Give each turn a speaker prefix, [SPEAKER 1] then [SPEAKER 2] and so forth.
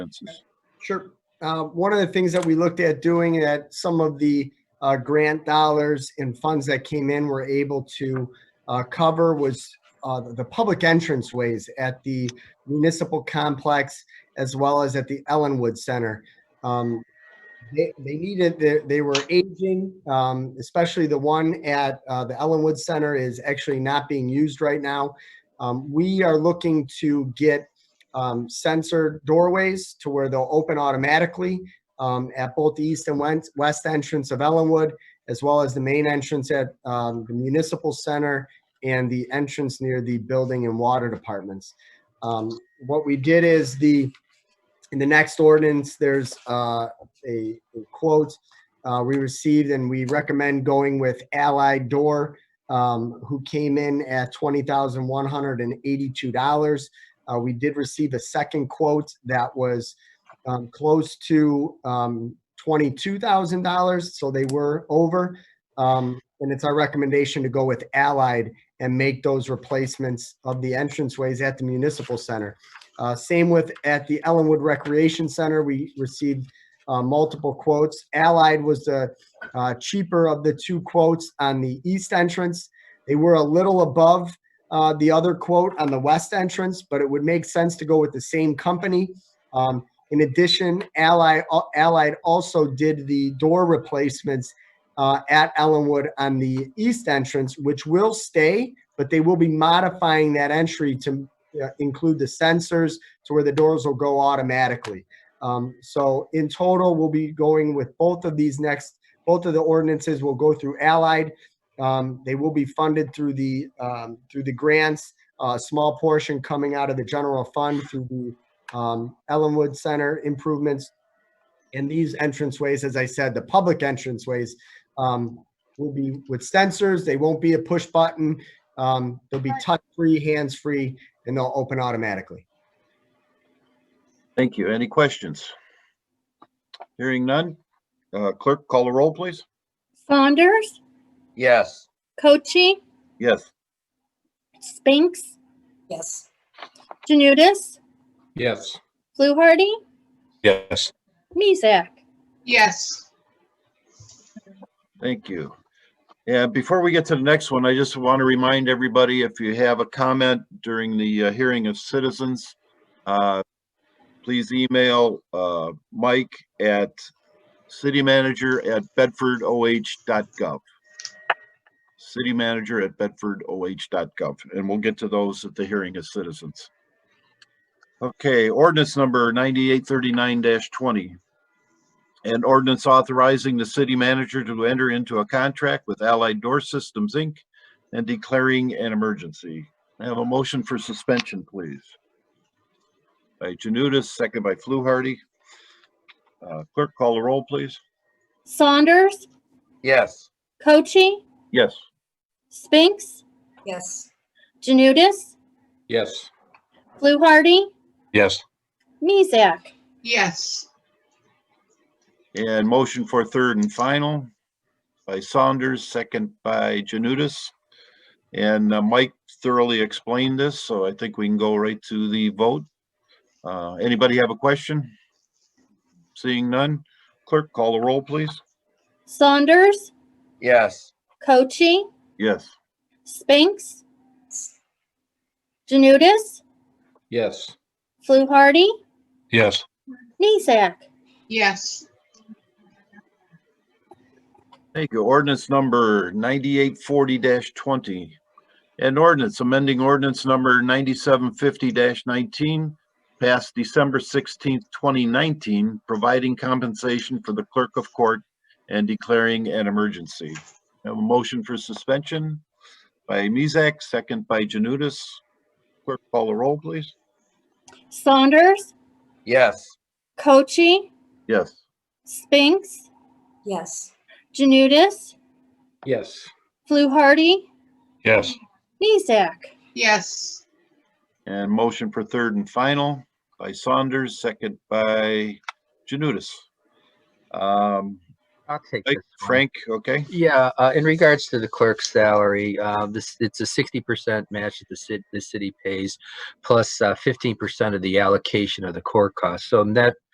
[SPEAKER 1] expenses.
[SPEAKER 2] Sure. Uh, One of the things that we looked at doing that some of the uh, grant dollars and funds that came in were able to uh, cover was uh, the public entrance ways at the municipal complex as well as at the Ellenwood Center. Um, They they needed, they they were aging, um, especially the one at uh, the Ellenwood Center is actually not being used right now. Um, We are looking to get um, sensor doorways to where they'll open automatically um, at both the east and wen- west entrance of Ellenwood, as well as the main entrance at um, the municipal center and the entrance near the building and water departments. Um, what we did is the in the next ordinance, there's uh, a, a quote uh, we received, and we recommend going with Allied Door, um, who came in at twenty thousand one hundred and eighty-two dollars. Uh, we did receive a second quote that was um, close to um, $22,000, so they were over. Um, and it's our recommendation to go with Allied and make those replacements of the entranceways at the municipal center. Uh, same with at the Ellenwood Recreation Center, we received uh, multiple quotes. Allied was the uh, cheaper of the two quotes on the east entrance. They were a little above uh, the other quote on the west entrance, but it would make sense to go with the same company. Um, in addition, Ally, Allied also did the door replacements uh, at Ellenwood on the east entrance, which will stay, but they will be modifying that entry to uh, include the sensors to where the doors will go automatically. Um, so in total, we'll be going with both of these next, both of the ordinances will go through Allied. Um, they will be funded through the, um, through the grants, a small portion coming out of the general fund through the, um, Ellenwood Center improvements. And these entranceways, as I said, the public entranceways, um, will be with sensors. They won't be a push button. Um, they'll be touch-free, hands-free, and they'll open automatically.
[SPEAKER 1] Thank you. Any questions? Hearing none. Uh, Clerk, call the roll, please.
[SPEAKER 3] Saunders,
[SPEAKER 4] Yes.
[SPEAKER 3] Cochi,
[SPEAKER 1] Yes.
[SPEAKER 3] Spinks,
[SPEAKER 5] Yes.
[SPEAKER 3] Janudis,
[SPEAKER 4] Yes.
[SPEAKER 3] Fluharty,
[SPEAKER 4] Yes.
[SPEAKER 3] Mizek.
[SPEAKER 5] Yes.
[SPEAKER 1] Thank you. Yeah, before we get to the next one, I just want to remind everybody, if you have a comment during the uh, hearing of citizens, uh, please email uh, Mike at citymanager@bedfordoh.gov. Citymanager@bedfordoh.gov, and we'll get to those at the hearing of citizens. Okay, ordinance number 9839-20, an ordinance authorizing the city manager to enter into a contract with Allied Door Systems, Inc. and declaring an emergency. I have a motion for suspension, please. By Janutus, second by Fluharty. Uh, Clerk, call the roll, please.
[SPEAKER 3] Saunders,
[SPEAKER 4] Yes.
[SPEAKER 3] Cochi,
[SPEAKER 1] Yes.
[SPEAKER 3] Spinks,
[SPEAKER 5] Yes.
[SPEAKER 3] Janudis,
[SPEAKER 4] Yes.
[SPEAKER 3] Fluharty,
[SPEAKER 4] Yes.
[SPEAKER 3] Mizek.
[SPEAKER 5] Yes.
[SPEAKER 1] And motion for third and final by Saunders, second by Janutus. And uh, Mike thoroughly explained this, so I think we can go right to the vote. Uh, Anybody have a question? Seeing none, clerk, call the roll, please.
[SPEAKER 3] Saunders,
[SPEAKER 4] Yes.
[SPEAKER 3] Cochi,
[SPEAKER 1] Yes.
[SPEAKER 3] Spinks, Janudis,
[SPEAKER 4] Yes.
[SPEAKER 3] Fluharty,
[SPEAKER 4] Yes.
[SPEAKER 3] Mizek.
[SPEAKER 5] Yes.
[SPEAKER 1] Thank you. Ordinance number ninety-eight forty twenty. An ordinance amending ordinance number ninety-seven fifty nineteen passed December sixteenth, twenty nineteen, providing compensation for the clerk of court and declaring an emergency. I Have a motion for suspension by Mezak, second by Janutus. Clerk, call the roll, please.
[SPEAKER 3] Saunders,
[SPEAKER 4] Yes.
[SPEAKER 3] Cochi,
[SPEAKER 1] Yes.
[SPEAKER 3] Spinks,
[SPEAKER 5] Yes.
[SPEAKER 3] Janudis,
[SPEAKER 4] Yes.
[SPEAKER 3] Fluharty,
[SPEAKER 4] Yes.
[SPEAKER 3] Mizek.
[SPEAKER 5] Yes.
[SPEAKER 1] And motion for third and final by Saunders, second by Janutus. Um,
[SPEAKER 6] I'll take
[SPEAKER 1] Mike,
[SPEAKER 6] this one.
[SPEAKER 1] Frank, okay?
[SPEAKER 6] Yeah, uh, in regards to the clerk's salary, uh, this, it's a sixty percent match that the city, uh, the city pays, plus fifteen percent of the allocation of the core cost. So net